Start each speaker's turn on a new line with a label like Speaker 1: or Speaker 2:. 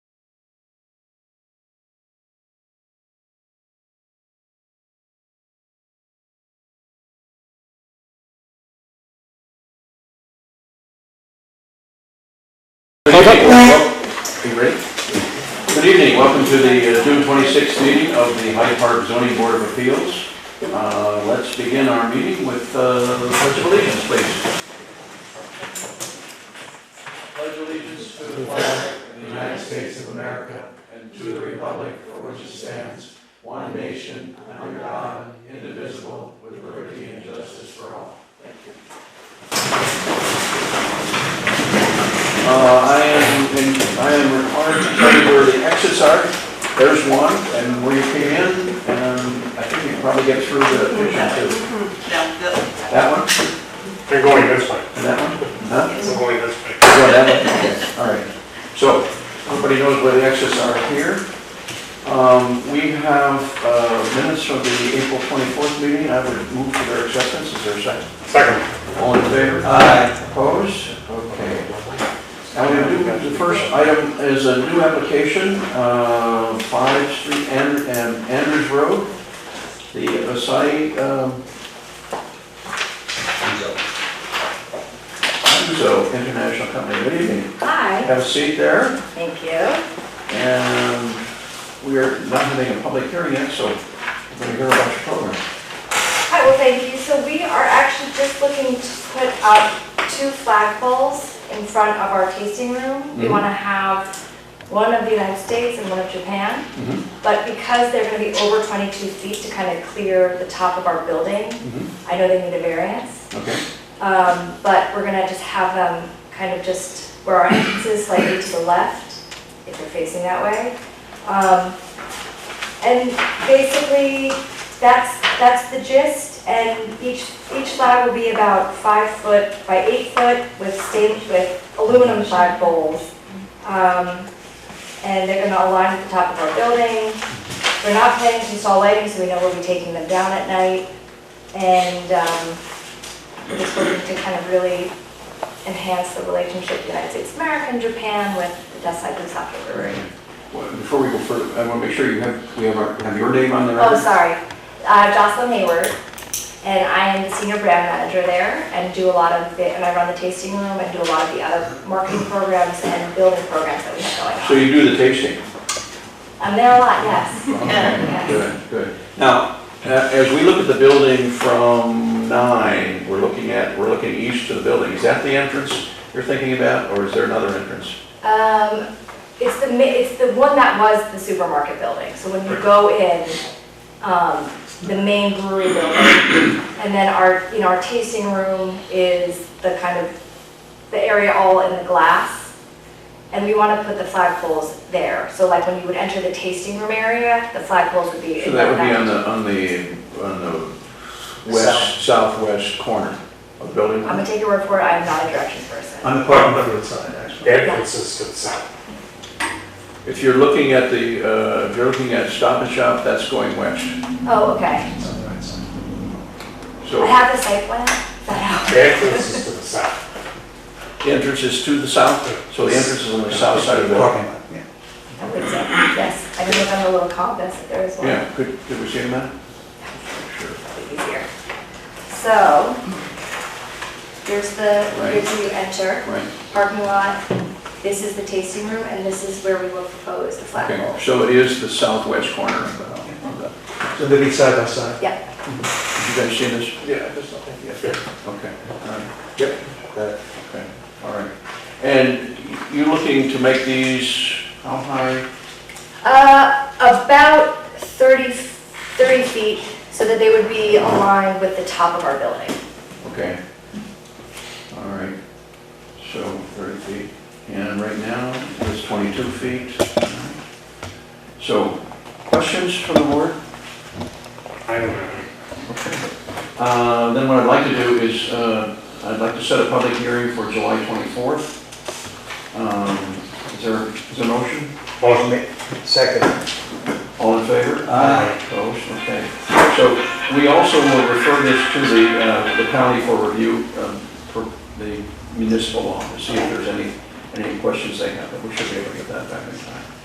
Speaker 1: Good evening. Good evening, welcome to the uh, June 26th meeting of the Hyde Park Zoning Board of Appeals. Uh, Let's begin our meeting with uh, the pledge of allegiance, please. Pledge allegiance to the flag of the United States of America and to the republic for which it stands, one nation, under God, indivisible, with liberty and justice for all. Uh, I am, in- I am required to tell you where the exits are. There's one, and where you came in, and I think you can probably get through the picture too.
Speaker 2: No, the,
Speaker 1: That one,
Speaker 3: They're going this way.
Speaker 1: and that one, huh?
Speaker 3: They're going this way.
Speaker 1: Go that way. Okay, All right, so, everybody knows where the exits are here. Um, We have uh, minutes from the April 24th meeting, I would move for their acceptance, is there a second?
Speaker 3: Second,
Speaker 1: All in favor? Aye. Opposed? Okay. Now, we do, the first item is a new application, uh, 5 Street and and Andrews Road, the Asai, um... Anzo International Company, good evening.
Speaker 4: Hi.
Speaker 1: Have a seat there,
Speaker 4: Thank you.
Speaker 1: and we are not having a public hearing yet, so we're gonna hear about your program.
Speaker 4: Hi, well, thank you. So we are actually just looking to put up two flagpoles in front of our tasting room. We
Speaker 1: Mhm.
Speaker 4: want to have one of the United States and one of Japan.
Speaker 1: Mhm.
Speaker 4: But because they're going to be over 22 feet to kind of clear the top of our building,
Speaker 1: Mhm.
Speaker 4: I know they need a variance.
Speaker 1: Okay.
Speaker 4: Um, But we're going to just have them kind of just where our entrance is slightly to the left, if they're facing that way. Um, And basically, that's, that's the gist, and each, each flag will be about five foot by eight foot with stained with aluminum flag poles. Um, And they're gonna align at the top of our building. We're not planning to install lighting, so we know we'll be taking them down at night. And um, we're just looking to kind of really enhance the relationship with the United States of America and Japan with the Desai Busaka Brewery.
Speaker 1: Well, Before we go further, I wanna make sure you have, we have our, have your name on the record.
Speaker 4: Oh, sorry. Uh, Jocelyn Hayward, and I am the senior brand manager there and do a lot of, the and I run the tasting room and do a lot of the other marketing programs and building programs that we have
Speaker 1: So
Speaker 4: going on.
Speaker 1: you do the tasting?
Speaker 4: I'm there a lot, yes.
Speaker 1: Okay, Good, good. Now, uh, as we look at the building from nine, we're looking at, we're looking east to the building. Is that the entrance you're thinking about, or is there another entrance?
Speaker 4: Um, it's the, mi- it's the one that was the supermarket building, so when you go in, um, the main brewery building, and then our, you know, our tasting room is the kind of, the area all in the glass, and we wanna put the flagpoles there, so like when you would enter the tasting room area, the flagpoles would be.
Speaker 1: So that would be on the, on the, on the west, southwest corner of the building?
Speaker 4: I'm gonna take your word for it, I am not a directions person.
Speaker 5: On the parking lot road side, actually.
Speaker 3: that puts us to the south.
Speaker 1: If you're looking at the, uh, if you're looking at Stop and Shop, that's going west.
Speaker 4: Oh, okay,
Speaker 5: It's on the right side.
Speaker 4: I
Speaker 1: So
Speaker 4: have the site plan, that helps.
Speaker 3: That puts us to the south.
Speaker 1: the entrance is to the south, so the entrance is on the south side of the building.
Speaker 5: Parking lot, yeah.
Speaker 4: I think so, yes, I can look on the little compass, if there is one.
Speaker 1: Yeah, could, could we see a map? Sure.
Speaker 4: easier. So, here's the,
Speaker 1: Right.
Speaker 4: here's where you enter,
Speaker 1: Right.
Speaker 4: parking lot, this is the tasting room, and this is where we will propose the flagpole.
Speaker 1: Okay, so it is the southwest corner of the, of the-
Speaker 5: So they'll be side by side.
Speaker 4: Yep,
Speaker 1: Did you guys see this? Yeah, there's nothing yet. Okay, all right. Yep. That, okay, all right. And you're looking to make these, how high?
Speaker 4: uh, about 30, 30 feet, so that they would be aligned with the top of our building.
Speaker 1: Okay. All right, so 30 feet. And right now, it's 22 feet. So, questions from the board?
Speaker 3: I don't know.
Speaker 1: Uh, Then what I'd like to do is, uh, I'd like to set a public hearing for July 24th. Um, Is there, is there a motion?
Speaker 3: Motion made.
Speaker 5: Second.
Speaker 1: All in favor?
Speaker 5: Aye.
Speaker 1: Opposed? Okay. So we also will refer this to the, uh, the county for review, um, for the municipal law, to see if there's any, any questions they have, but we should be able to get that back in time.